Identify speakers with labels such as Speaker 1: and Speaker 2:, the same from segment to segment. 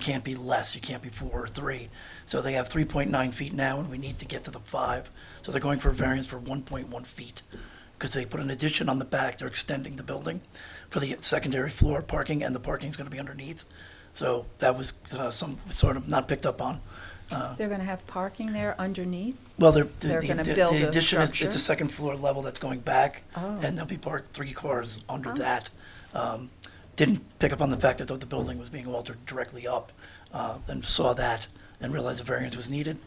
Speaker 1: can't be less, you can't be four or three. So they have three point nine feet now, and we need to get to the five. So they're going for variance for one point one feet, because they put an addition on the back, they're extending the building for the secondary floor parking, and the parking's gonna be underneath. So that was, uh, some, sort of not picked up on.
Speaker 2: They're going to have parking there underneath?
Speaker 1: Well, they're, the,
Speaker 2: They're
Speaker 1: the,
Speaker 2: gonna
Speaker 1: the-
Speaker 2: build
Speaker 1: the
Speaker 2: a
Speaker 1: addition is, it's
Speaker 2: structure?
Speaker 1: a second floor level that's going back,
Speaker 2: Oh.
Speaker 1: and they'll be parked three cars under that. Um, didn't pick up on the fact that the building was being altered directly up, uh, and saw that and realized a variance was needed.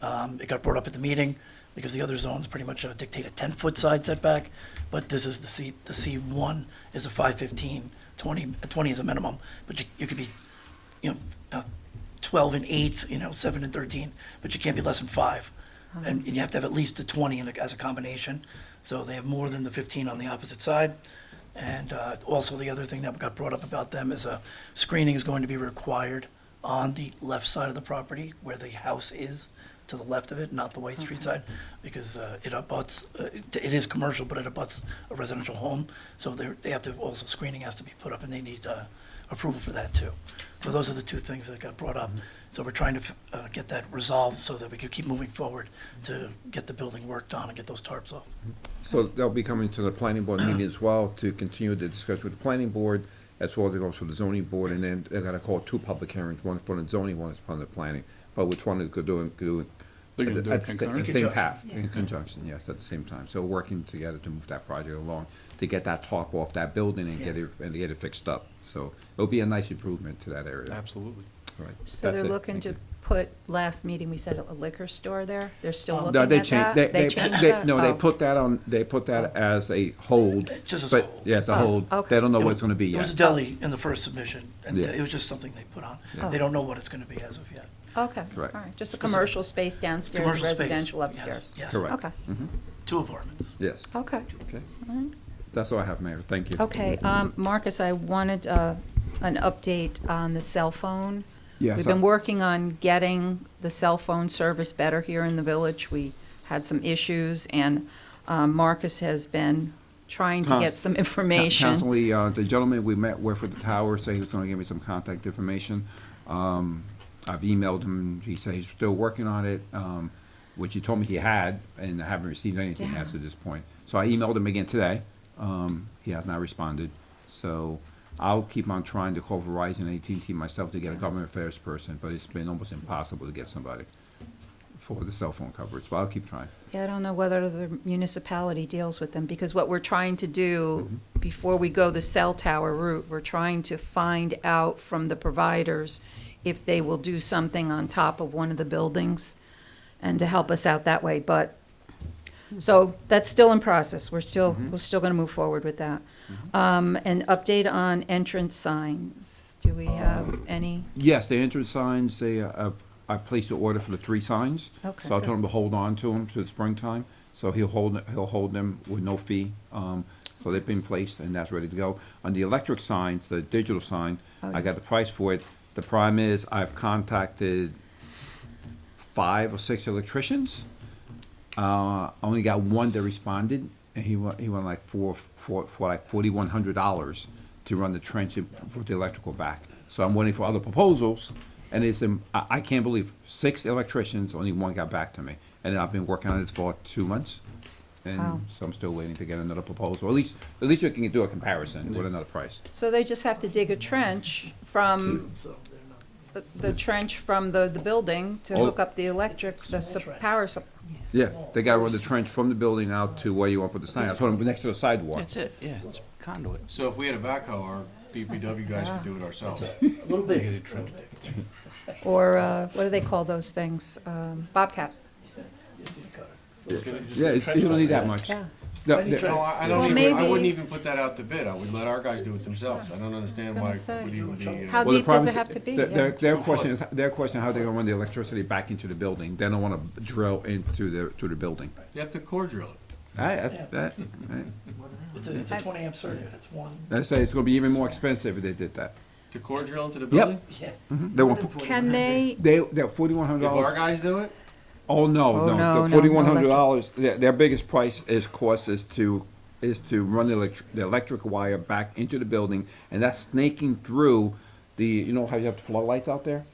Speaker 1: Um, it got brought up at the meeting because the other zones pretty much uh, dictate a ten-foot side setback, but this is the C, the C one is a 515, 20 uh, 20 is a minimum, but you, you could be, you know, uh, 12 and 8, you know, 7 and 13, but you can't be less than 5. And and you have to have at least a 20 in a- as a combination. So they have more than the 15 on the opposite side. And uh, also, the other thing that got brought up about them is uh, screening is going to be required on the left side of the property where the house is, to the left of it, not the White Street side, because uh, it abuts, uh, it it is commercial, but it abuts a residential home. So they're, they have to, also screening has to be put up, and they need uh, approval for that too. So those are the two things that got brought up.
Speaker 3: Mm-hmm.
Speaker 1: So we're trying to f- uh, get that resolved so that we could keep moving forward to get the building worked on and get those tarps off.
Speaker 3: So they'll be coming to the planning board meeting as well to continue the discussion with the planning board, as well as it goes for the zoning board, and then they're gonna call two public hearings, one for the zoning, one is for the planning. But which one is gonna do, it- do it?
Speaker 4: They're gonna
Speaker 3: at the-
Speaker 4: do it
Speaker 3: at the sa-
Speaker 4: concurrent?
Speaker 3: The same
Speaker 1: Conjunction.
Speaker 3: path, in conjunction, yes, at the same time. So working together to move that project along, to get that top off that building and get it,
Speaker 1: Yes.
Speaker 3: and get it fixed up. So it'll be a nice improvement to that area.
Speaker 4: Absolutely.
Speaker 3: All right.
Speaker 2: So they're
Speaker 3: That's it.
Speaker 2: looking
Speaker 3: Thank
Speaker 2: to
Speaker 3: you.
Speaker 2: put, last meeting, we said a liquor store there? They're still
Speaker 1: Um,
Speaker 2: looking
Speaker 3: No,
Speaker 2: at
Speaker 3: they
Speaker 2: that?
Speaker 3: changed, they, they,
Speaker 2: changed
Speaker 3: they-
Speaker 2: that?
Speaker 3: no, they
Speaker 2: Oh.
Speaker 3: put that on, they put that as a hold.
Speaker 1: Just as
Speaker 3: but-
Speaker 1: hold.
Speaker 3: Yes, a
Speaker 2: Oh,
Speaker 3: hold.
Speaker 2: okay.
Speaker 3: They don't know
Speaker 1: It
Speaker 3: what
Speaker 1: was-
Speaker 3: it's gonna be
Speaker 1: It was a
Speaker 3: yet.
Speaker 1: deli in the first submission, and
Speaker 3: Yeah.
Speaker 1: it was just something they put on.
Speaker 2: Yeah.
Speaker 1: They don't know what it's going to be as of yet.
Speaker 2: Okay, all
Speaker 3: Correct.
Speaker 2: right, just a
Speaker 1: Specific-
Speaker 2: commercial space downstairs,
Speaker 1: Commercial space,
Speaker 2: residential
Speaker 1: yes,
Speaker 2: upstairs?
Speaker 1: Yes.
Speaker 3: Correct. Mm-hmm.
Speaker 2: Okay,
Speaker 1: Two apartments.
Speaker 3: Yes.
Speaker 2: okay.
Speaker 3: Okay. That's all I have, Mayor. Thank you.
Speaker 2: Okay, um, Marcus, I wanted uh, an update on the cell phone.
Speaker 3: Yes, uh,
Speaker 2: We've
Speaker 3: I-
Speaker 2: been working on getting the cell phone service better here in the village. We had some issues, and um, Marcus has been trying to
Speaker 3: Cons-
Speaker 2: get some
Speaker 3: Coun-
Speaker 2: information.
Speaker 3: Constantly, uh, the gentleman we met with for the tower said he was gonna give me some contact information. Um, I've emailed him, he said he's still working on it, um, which he told me he had, and I haven't received anything
Speaker 2: Yeah.
Speaker 3: as to this point. So I emailed him again today, um, he has not responded, so I'll keep on trying to call Verizon, AT&T myself to get a government affairs person, but it's been almost impossible to get somebody for the cell phone coverage, but I'll keep trying.
Speaker 2: Yeah, I don't know whether the municipality deals with them, because what we're trying to do, before we go the cell tower route, we're trying to find out from the providers if they will do something on top of one of the buildings, and to help us out that way, but, so that's still in process. We're still, we're still gonna move forward with that. Um, an update on entrance signs. Do we have any?
Speaker 3: Yes, the entrance signs, they, uh, I placed the order for the three signs.
Speaker 2: Okay.
Speaker 3: So I told him to hold on to them to the springtime, so he'll hold, he'll hold them with no fee. Um, so they've been placed and that's ready to go. On the electric signs, the digital sign,
Speaker 2: Oh,
Speaker 3: I
Speaker 2: yeah.
Speaker 3: got the price for it. The problem is, I've contacted five or six electricians. Uh, I only got one that responded, and he won, he won like four, four, for like forty-one hundred dollars to run the trench and put the electrical back. So I'm waiting for other proposals, and it's, um, I, I can't believe, six electricians, only one got back to me. And I've been working on this for two months,
Speaker 2: Wow.
Speaker 3: and so I'm still waiting to get another proposal, at least, at least you can do a comparison with another price.
Speaker 2: So they just have to dig a trench from,
Speaker 1: So they're not.
Speaker 2: the- the trench from the, the building to
Speaker 3: Oh.
Speaker 2: hook up the electric, the sup- power supply.
Speaker 3: Yeah, they gotta run the trench from the building out to where you want to put the sign, I told them, next to the sidewalk.
Speaker 5: That's it, yeah, it's conduit.
Speaker 4: So if we had a backhoe, our DPW guys could do it ourselves.
Speaker 1: A little bit.
Speaker 2: Or, uh, what do they call those things? Um, Bobcat.
Speaker 3: Yeah, it's- you don't need that much.
Speaker 2: Yeah.
Speaker 3: No,
Speaker 1: Tiny
Speaker 3: the-
Speaker 4: No,
Speaker 1: trench.
Speaker 4: I, I
Speaker 2: Well,
Speaker 4: don't even, I
Speaker 2: maybe-
Speaker 4: wouldn't even put that out to bid. I would let our guys do it themselves. I don't understand
Speaker 2: gonna
Speaker 4: why
Speaker 2: say.
Speaker 4: it would even be.
Speaker 2: How
Speaker 4: uh,
Speaker 3: Well,
Speaker 2: deep
Speaker 3: the
Speaker 2: does
Speaker 3: problem
Speaker 2: it
Speaker 3: is
Speaker 2: have to be?
Speaker 3: Their, their-
Speaker 2: Yeah.
Speaker 3: their question is, their question, how they're gonna run the electricity back into the building, they don't wanna drill into the, to the building.
Speaker 4: You have to core drill it.
Speaker 3: I, I, that,
Speaker 1: It's a, it's a 20 amp circuit. It's one.
Speaker 3: I say it's gonna be even more expensive if they did that.
Speaker 4: To core drill into the building?
Speaker 1: Yeah.
Speaker 3: They want,
Speaker 2: Can they,
Speaker 3: they, they're forty-one hundred
Speaker 4: If our
Speaker 3: dollars.
Speaker 4: guys do it?
Speaker 3: Oh,
Speaker 2: Oh,
Speaker 3: no,
Speaker 2: no, no,
Speaker 3: no,
Speaker 2: no
Speaker 3: the forty-one hundred dollars, their, their biggest price is, cost is to, is to run the electric, the electric wire back into the building, and that's snaking through the, you know how you have the floodlights out there?